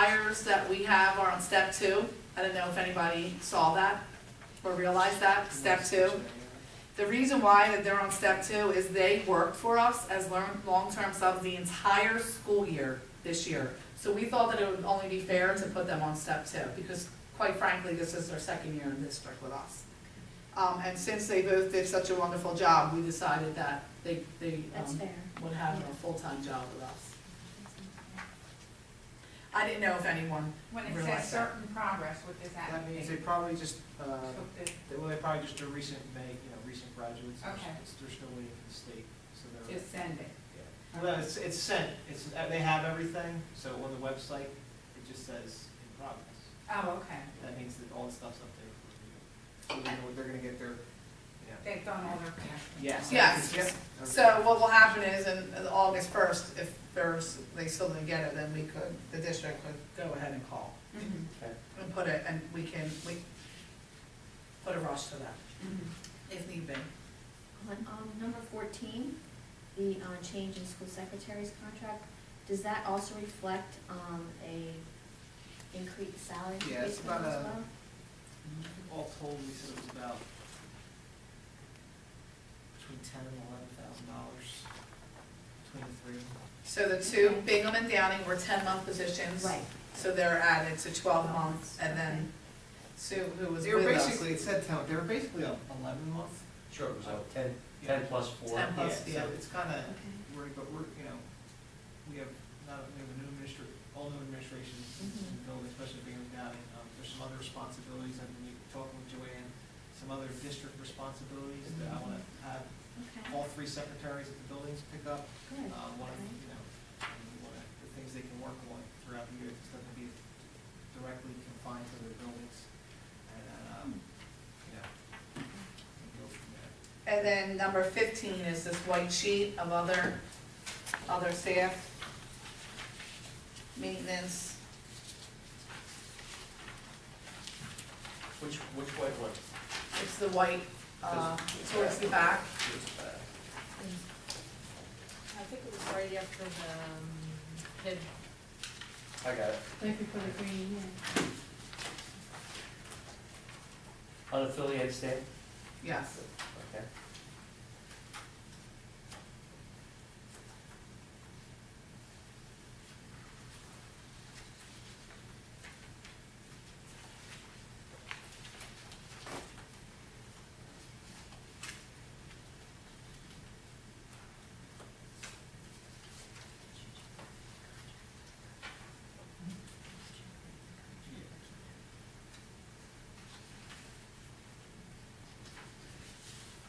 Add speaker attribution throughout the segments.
Speaker 1: numbers that we have are on step two. I don't know if anybody saw that or realized that, step two. The reason why that they're on step two is they worked for us as learn, long-term subs the entire school year this year. So we thought that it would only be fair to put them on step two, because quite frankly, this is their second year in the district with us. Um, and since they both did such a wonderful job, we decided that they, they,
Speaker 2: That's
Speaker 1: um,
Speaker 2: fair.
Speaker 1: would have a full-time job with us. I didn't know if anyone,
Speaker 3: When it
Speaker 1: Realize
Speaker 3: says
Speaker 1: that.
Speaker 3: certain progress, what does that
Speaker 4: That
Speaker 3: mean?
Speaker 4: means they probably just, uh,
Speaker 3: Took the-
Speaker 4: they- well, they probably just are recent, May, you know, recent graduates. They're
Speaker 3: Okay.
Speaker 4: s- They're still waiting for the state, so they're,
Speaker 3: Just send it.
Speaker 4: yeah. Well, it's, it's sent, it's, uh, they have everything, so on the website, it just says in progress.
Speaker 3: Oh, okay.
Speaker 4: That means that all the stuff's up there for review. So they know what they're gonna get their, yeah.
Speaker 3: They've done all their classes.
Speaker 4: Yes.
Speaker 1: Yes.
Speaker 4: Yep.
Speaker 1: so what will happen is in in August first, if there's, they still didn't get it, then we could, the district could go ahead and call
Speaker 3: Mhm,
Speaker 4: Okay.
Speaker 1: and put it, and we can, we put a rush to that
Speaker 3: mhm.
Speaker 1: if need be.
Speaker 2: On, um, number fourteen, the, uh, change in school secretary's contract, does that also reflect, um, a increased salary
Speaker 4: Yeah, it's
Speaker 2: increase as
Speaker 4: about a-
Speaker 2: well?
Speaker 4: All told, we said it was about between ten and eleven thousand dollars, between the three.
Speaker 1: So the two, Bingham and Downing were ten-month positions.
Speaker 2: Right.
Speaker 1: So they're added to twelve months, and then Sue, who was
Speaker 4: They
Speaker 1: with
Speaker 4: were
Speaker 1: us.
Speaker 4: basically, it said ten, they were basically a eleven month.
Speaker 5: Sure, it was like ten, ten plus four.
Speaker 1: Ten.
Speaker 4: Yeah,
Speaker 1: Plus, yeah.
Speaker 4: so it's kinda,
Speaker 2: Okay.
Speaker 4: we're, but we're, you know, we have, not, we have a new administr, all new administrations in the building, especially being down, and, um, there's some other responsibilities, I've been talking with Joanne, some other district responsibilities that I wanna have
Speaker 2: Okay,
Speaker 4: all three secretaries at the buildings pick up,
Speaker 2: good.
Speaker 4: um, one of,
Speaker 2: Okay.
Speaker 4: you know, um, one of the things they can work on throughout the year, it's gonna be directly confined to their buildings. And, um, you know, and go from there.
Speaker 1: And then number fifteen is this white sheet of other, other staff. Maintenance,
Speaker 5: Which, which white one?
Speaker 1: it's the white, uh, towards the back.
Speaker 6: I think it was right after the, um,
Speaker 5: I got it.
Speaker 6: Right before the green,
Speaker 5: Unaffiliated stand?
Speaker 1: Yes,
Speaker 5: Okay.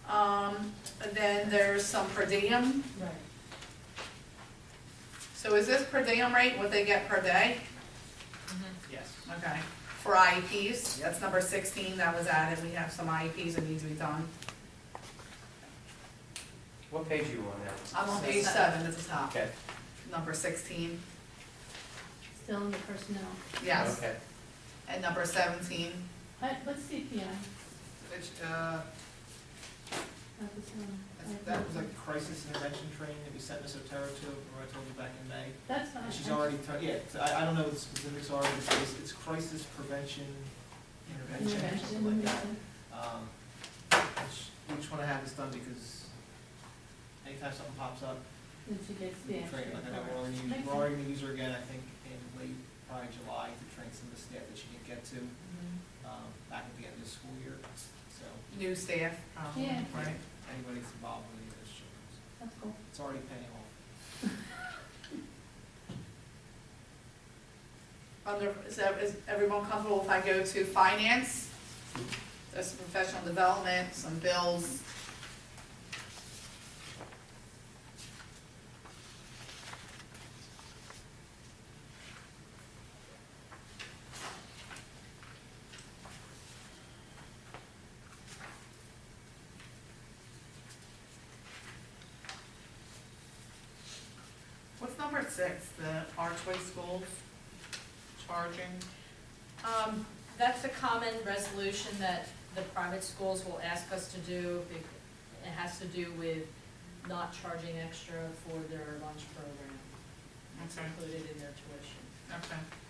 Speaker 1: um, and then there's some per diem,
Speaker 6: Right.
Speaker 1: so is this per diem rate, what they get per day?
Speaker 4: Yes.
Speaker 1: Okay, for IEPs, that's number sixteen that was added, we have some IEPs that need to be done.
Speaker 5: What page are you on now?
Speaker 1: I'm on page seven at the top,
Speaker 5: Okay,
Speaker 1: number sixteen,
Speaker 6: Still in the personnel.
Speaker 1: yes,
Speaker 5: okay.
Speaker 1: and number seventeen,
Speaker 6: What, what's CPI?
Speaker 4: It's, uh,
Speaker 6: That was, um,
Speaker 4: that's- that was a crisis intervention training that we sent Ms. Otero to, where I told you back in May.
Speaker 6: That's fine.
Speaker 4: And she's already, t- yeah, so I, I don't know what the specifics are, but it's, it's crisis prevention intervention, or something like
Speaker 6: Intervention,
Speaker 4: that.
Speaker 6: medicine.
Speaker 4: Um, which, we just wanna have this done because anytime something pops up,
Speaker 6: then she gets the
Speaker 4: we
Speaker 6: extra.
Speaker 4: train, like I know, we're already,
Speaker 6: Makes
Speaker 4: we're already gonna use her again, I think, in late, probably July, to train some of the staff that she didn't get to, um, back at the end of the school year, so
Speaker 1: new staff, probably,
Speaker 6: Yeah.
Speaker 1: right?
Speaker 4: anybody that's involved with any of those children, so
Speaker 6: That's cool.
Speaker 4: it's already paying off.
Speaker 1: Under, is, ev- is everyone comfortable if I go to finance? There's some professional development, some bills. What's number six, the Archway Schools charging?
Speaker 6: Um,
Speaker 7: That's a common resolution that the private schools will ask us to do. bec- It has to do with not charging extra for their lunch program. It's
Speaker 1: Okay.
Speaker 7: included in their tuition.
Speaker 1: Okay.